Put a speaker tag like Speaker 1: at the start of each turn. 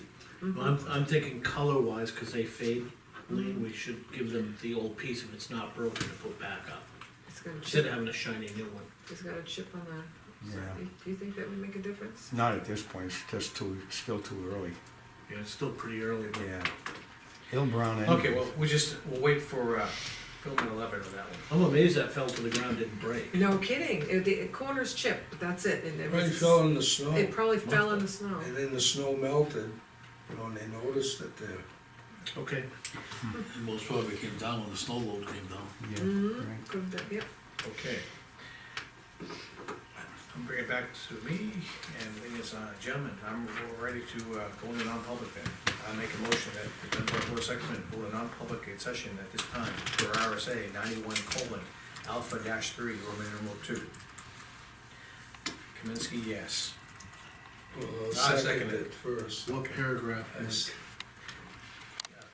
Speaker 1: Well, I'm, I'm thinking color wise, cause they fade,
Speaker 2: Mm-hmm.
Speaker 1: Lean, we should give them the old piece if it's not broken to put back up,
Speaker 3: It's got a
Speaker 1: instead
Speaker 3: chip,
Speaker 1: of having a shiny new one.
Speaker 3: it's got a chip on the,
Speaker 4: Yeah.
Speaker 3: do you- do you think that would make a difference?
Speaker 4: Not at this point, it's just too, it's still too early,
Speaker 1: Yeah, it's still pretty early, but.
Speaker 4: yeah. He'll brown anyways.
Speaker 5: Okay, well, we just, we'll wait for, uh, Philman eleven on that one.
Speaker 1: I'm amazed that fell to the ground, didn't break.
Speaker 3: No kidding, it, the corner's chipped, but that's it, and it
Speaker 6: Rain
Speaker 3: was,
Speaker 6: fell in the snow,
Speaker 3: it
Speaker 6: and
Speaker 3: probably fell in the snow.
Speaker 6: then the snow melted, you know, and they noticed that the,
Speaker 1: Okay.
Speaker 2: Most probably came down when the snow load came down.
Speaker 4: Yeah,
Speaker 3: Mhm.
Speaker 4: right.
Speaker 3: Could have, done- yep,
Speaker 5: Okay. I'll bring it back to me, and the thing is, uh, gentlemen, I'm ready to, uh, go into non-public then. I make a motion that the Dunbar Board of Selectmen go to non-public session at this time for RSA ninety-one colon alpha dash three, Roman numeral two. Kaminsky, yes.
Speaker 6: well,
Speaker 5: I second
Speaker 6: seconded
Speaker 5: it.
Speaker 6: it first.
Speaker 1: What paragraph?
Speaker 6: I s-